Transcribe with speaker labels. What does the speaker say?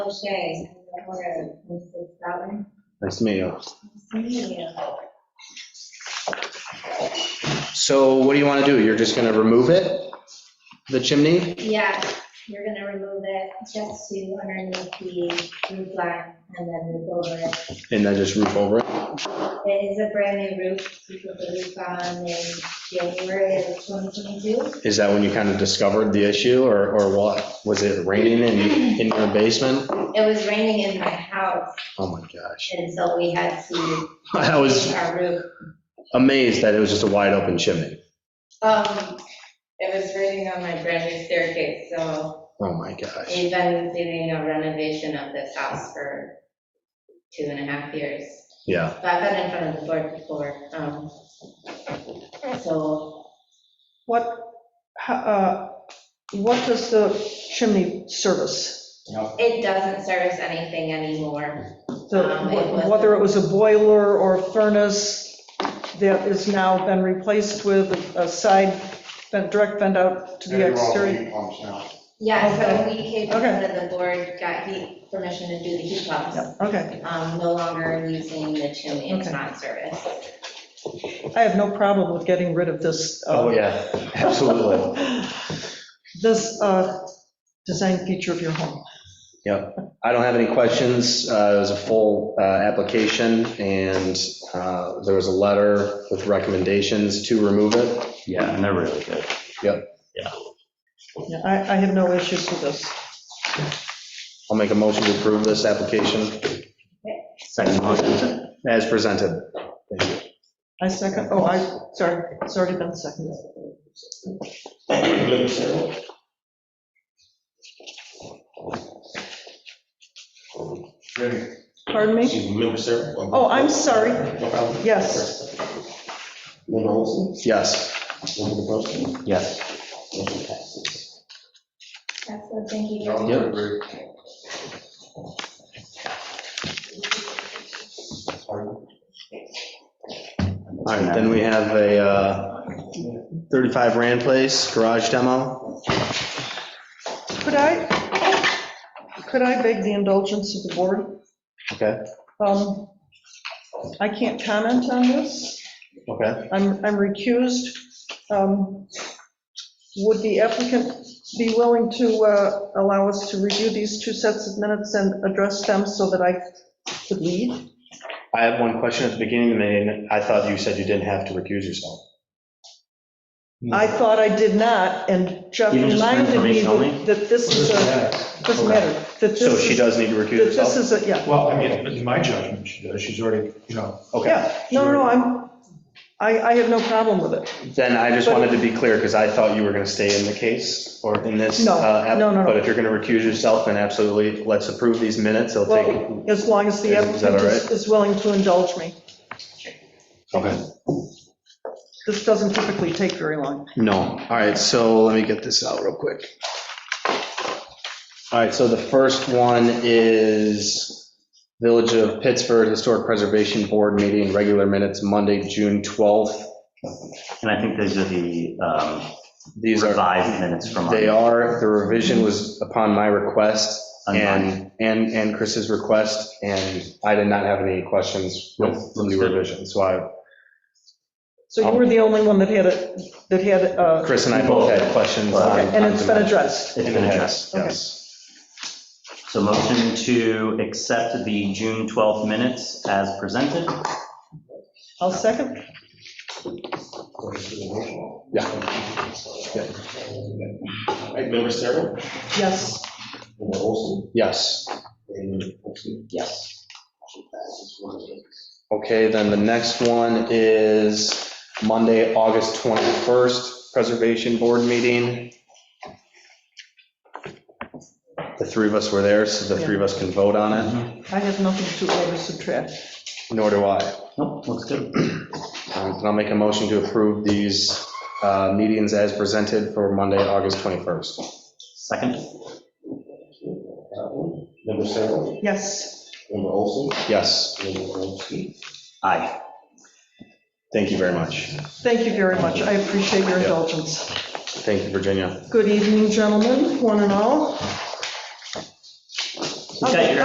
Speaker 1: O'Shea, Hanover Road, Mrs. Bratton.
Speaker 2: Nice to meet you. So what do you want to do? You're just going to remove it, the chimney?
Speaker 1: Yeah, you're gonna remove it just to underneath the roof line and then move over it.
Speaker 2: And then just roof over it?
Speaker 1: It is a brand new roof, we put the roof on in January of 2022.
Speaker 2: Is that when you kind of discovered the issue or, or what? Was it raining in, in your basement?
Speaker 1: It was raining in my house,
Speaker 2: Oh my gosh.
Speaker 1: and so we had to
Speaker 2: I was
Speaker 1: change our roof
Speaker 2: amazed that it was just a wide open chimney.
Speaker 3: Um, it was raining on my brand new staircase, so
Speaker 2: Oh my gosh.
Speaker 3: we've been doing a renovation of this house for two and a half years.
Speaker 2: Yeah.
Speaker 3: But I've been in front of the board before, um, so
Speaker 4: What, how, uh, what does the chimney service?
Speaker 3: it doesn't service anything anymore. Um, it
Speaker 4: The-
Speaker 3: was-
Speaker 4: Whether it was a boiler or a furnace that has now been replaced with a side, vent- direct vent out to the
Speaker 5: They're all
Speaker 4: exterior?
Speaker 5: heat pumps now.
Speaker 3: Yeah, so we came in
Speaker 4: Okay.
Speaker 3: front of the board, got heat, permission to do the heat pumps.
Speaker 4: Yeah, Okay,
Speaker 3: Um, no longer using the chimney, it's
Speaker 4: Okay.
Speaker 3: not serviced.
Speaker 4: I have no problem with getting rid of this. uh,
Speaker 2: Oh, yeah, absolutely.
Speaker 4: This uh, design feature of your home.
Speaker 2: I don't have any questions. Uh, It was a full uh, application, and uh, there was a letter with recommendations to remove it.
Speaker 6: Yeah, and they're really good.
Speaker 4: Yeah, I, I have no issues with this.
Speaker 2: I'll make a motion to approve this application
Speaker 6: Second motion.
Speaker 2: as presented.
Speaker 4: I second, oh, I, sorry, it's already been seconded.
Speaker 5: Really,
Speaker 4: Pardon me? Oh, I'm sorry. Yes.
Speaker 2: Yes,
Speaker 6: Yes.
Speaker 1: Excellent, thank you.
Speaker 5: no,
Speaker 2: Yep.
Speaker 5: agree.
Speaker 2: all right, then we have a uh, 35 Rand Place garage demo.
Speaker 4: Could I, could I beg the indulgence of the board?
Speaker 2: Okay,
Speaker 4: Um, I can't comment on this.
Speaker 2: okay.
Speaker 4: I'm, I'm recused. Um, Would the applicant be willing to uh, allow us to review these two sets of minutes and address them so that I could lead?
Speaker 2: I have one question at the beginning of the meeting. I thought you said you didn't have to recuse yourself.
Speaker 4: I thought I did not, and Jeff
Speaker 6: Even just for
Speaker 4: reminded me
Speaker 6: information only?
Speaker 4: that that this is a, doesn't matter, that this
Speaker 2: So she
Speaker 4: is, that
Speaker 2: does need to recuse
Speaker 4: this
Speaker 2: herself?
Speaker 4: is a, yeah.
Speaker 5: Well, I mean, in my judgment, she does, she's already, you know,
Speaker 2: Okay.
Speaker 4: Yeah, no, no, I'm, I, I have no problem with it.
Speaker 2: Then I just wanted to be clear, because I thought you were going to stay in the case or in this.
Speaker 4: No,
Speaker 2: uh, app-
Speaker 4: no, no, no.
Speaker 2: But if you're going to recuse yourself, then absolutely, let's approve these minutes. They'll take,
Speaker 4: Well, as long as the
Speaker 2: Is that
Speaker 4: applicant
Speaker 2: all right?
Speaker 4: is is willing to indulge me.
Speaker 2: okay,
Speaker 4: This doesn't typically take very long.
Speaker 2: no. All right, so let me get this out real quick. All right, so the first one is Village of Pittsford Historic Preservation Board meeting, regular minutes, Monday, June 12th.
Speaker 6: And I think these are the um,
Speaker 2: These are,
Speaker 6: revised minutes from.
Speaker 2: they are, the revision was upon my request
Speaker 6: On
Speaker 2: and, and, and Chris's request, and I did not have any questions with the revision, so I
Speaker 4: So
Speaker 2: Um,
Speaker 4: you were the only one that had it, that had, uh,
Speaker 2: Chris and I both had questions on.
Speaker 4: and it's been addressed.
Speaker 6: It's been addressed.
Speaker 2: Yes.
Speaker 6: So motion to accept the June 12th minutes as presented.
Speaker 4: I'll second.
Speaker 2: Yeah.
Speaker 7: Member Sarah?
Speaker 4: Yes.
Speaker 7: Member Olson?
Speaker 2: Yes.
Speaker 6: Yes.
Speaker 2: Okay, then the next one is Monday, August 21st, Preservation Board meeting. The three of us were there, so the three of us can vote on it,
Speaker 4: I have nothing to add or subtract.
Speaker 2: nor do I.
Speaker 6: Nope, looks good.
Speaker 2: Um, And I'll make a motion to approve these uh, meetings as presented for Monday, August 21st.
Speaker 6: Second?
Speaker 7: Member Sarah?
Speaker 4: Yes.
Speaker 7: Member Olson?
Speaker 2: Yes,
Speaker 7: Member Bronski?
Speaker 6: Aye.
Speaker 2: thank you very much.
Speaker 4: Thank you very much. I appreciate your indulgence.
Speaker 2: Thank you, Virginia.
Speaker 4: Good evening, gentlemen, one and all.
Speaker 6: Okay,